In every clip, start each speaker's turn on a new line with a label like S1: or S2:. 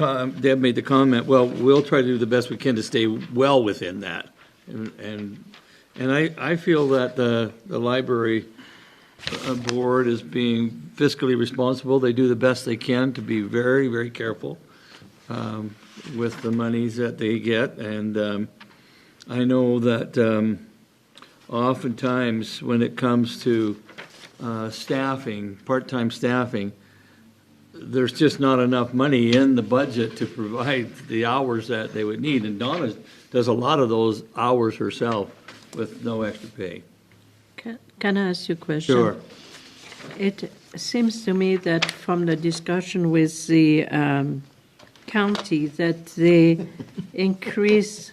S1: com- Deb made the comment, well, we'll try to do the best we can to stay well within that. And, and and I, I feel that the, the library uh, board is being fiscally responsible. They do the best they can to be very, very careful um, with the monies that they get. And um, I know that um, oftentimes, when it comes to uh, staffing, part-time staffing, there's just not enough money in the budget to provide the hours that they would need. And Donna does a lot of those hours herself with no extra pay.
S2: Ca- Can I ask you a question? It seems to me that from the discussion with the um, county, that they increase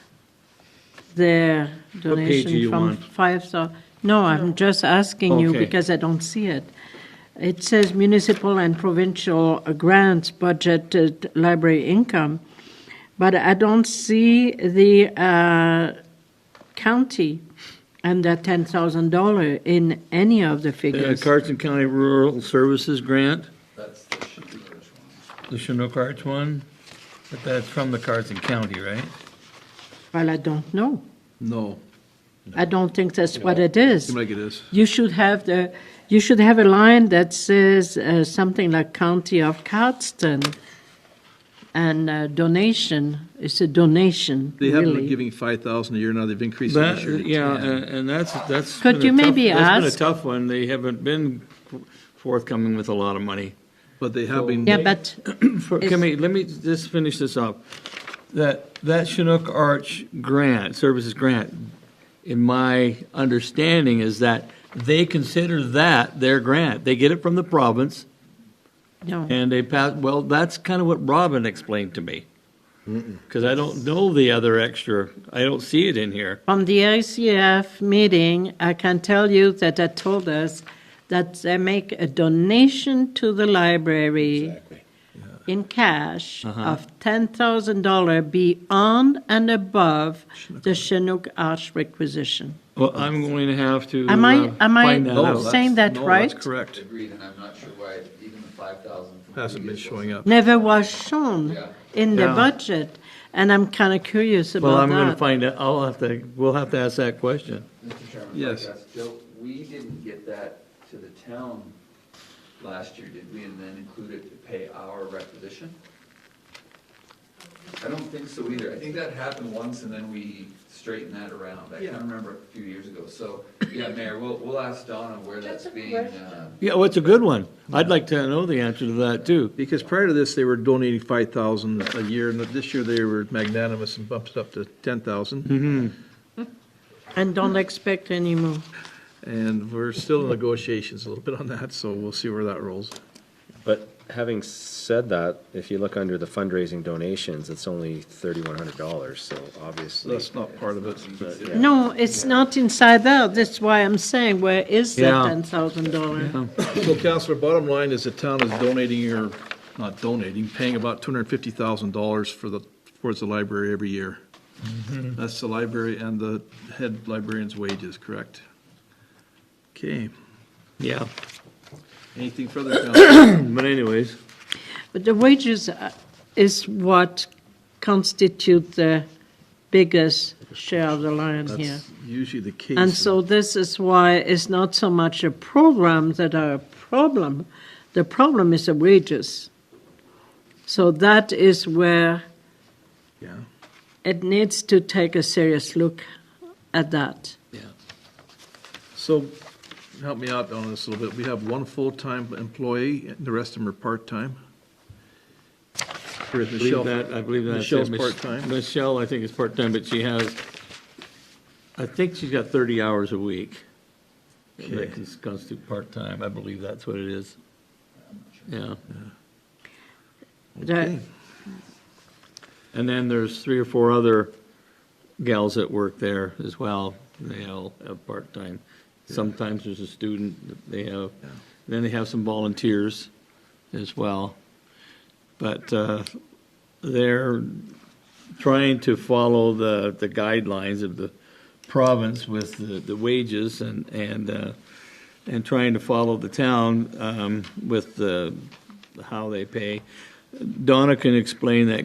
S2: their
S1: page do
S2: donation
S1: you
S2: from
S1: want?
S2: 5,000. No, I'm just asking you
S1: Okay.
S2: because I don't see it. It says municipal and provincial grants budgeted library income, but I don't see the uh, county and the $10,000 in any of the
S1: Uh,
S2: figures.
S1: Carson County Rural Services Grant? That's the Chinook Arch one. The Chinook Arch one? But that's from the Carson County, right?
S2: Well, I don't know.
S3: No,
S2: I don't think that's what it is.
S3: seems like it is.
S2: You should have the, you should have a line that says uh, something like County of Cardston and uh, donation, it's a donation,
S3: They haven't been
S2: really.
S3: giving five thousand a year now, they've increased it
S1: That-
S3: this year. to
S1: yeah, uh,
S3: 10.
S1: and and that's, that's.
S2: Could
S1: been a
S2: you
S1: tough-
S2: maybe
S1: That's
S2: ask-
S1: been a tough one. They haven't been forthcoming with a lot of money.
S3: But they have been,
S2: Yeah, but
S1: For- Can we, let me just finish this up. That, that Chinook Arch grant, services grant, in my understanding is that they consider that their grant. They get it from the province.
S2: no,
S1: And they pass, well, that's kind of what Robin explained to me. Because I don't know the other extra, I don't see it in here.
S2: from the ICF meeting, I can tell you that they told us that they make a donation to the library in cash of $10,000 beyond and above the Chinook Arch requisition.
S1: Well, I'm going to have to
S2: Am I-
S1: uh,
S2: am I-
S1: find that
S3: no,
S1: out.
S3: that's-
S2: Oh, saying that
S3: no,
S2: right?
S3: That's correct,
S4: agreed, and I'm not sure why even the five thousand.
S3: hasn't been showing up.
S2: never was shown
S4: Yeah.
S2: in the
S1: Yeah.
S2: budget, and I'm kind of curious
S1: Well,
S2: about
S1: I'm going to
S2: that.
S1: find out, I'll have to, we'll have to ask that question.
S4: Mr. Chairman.
S3: Yes.
S4: Joe, we didn't get that to the town last year, did we, and then include it to pay our requisition? I don't think so either. I think that happened once and then we straightened that around. I can't remember a few years ago. So, yeah, Mayor, we'll, we'll ask Donna where that's being, uh,
S1: Yeah, well, it's a good one. I'd like to know the answer to that, too.
S3: Because prior to this, they were donating five thousand a year, and this year they were magnanimous and bumped it up to ten
S1: Mm-hmm.
S3: thousand.
S2: And don't expect any more.
S3: And we're still in negotiations a little bit on that, so we'll see where that rolls.
S5: But having said that, if you look under the fundraising donations, it's only thirty-one hundred dollars, so obviously.
S3: That's not part of it, but yeah.
S2: No, it's not inside out, that's why I'm saying, where is that
S1: Yeah.
S2: $10,000?
S3: So Counselor, bottom line is the town is donating or, not donating, paying about two hundred and fifty thousand dollars for the, towards the library every year.
S1: Mm-hmm.
S3: That's the library and the head librarian's wages, correct? Okay,
S1: Yeah,
S3: anything further, Counselor?
S1: but anyways,
S2: But the wages uh, is what constitute the biggest share of the lion here.
S3: That's usually the case.
S2: And so this is why it's not so much a program that are a problem. The problem is the wages. So that is where
S3: Yeah,
S2: it needs to take a serious look at that.
S3: so, help me out on this a little bit, we have one full-time employee, and the rest of them are part-time. Whereas
S1: I believe
S3: Michelle-
S1: that, I believe that's it.
S3: Michelle's
S1: Mich-
S3: part-time,
S1: Michelle, I think, is part-time, but she has, I think she's got 30 hours a week.
S3: Okay.
S1: That cons- constitute part-time, I believe that's what it is. Yeah,
S2: That-
S1: and then there's three or four other gals that work there as well, they all have part-time. Sometimes there's a student that they have, then they have some volunteers as well. But uh, they're trying to follow the, the guidelines of the province with the, the wages and, and, uh, and trying to follow the town um, with the, how they pay. Donna can explain that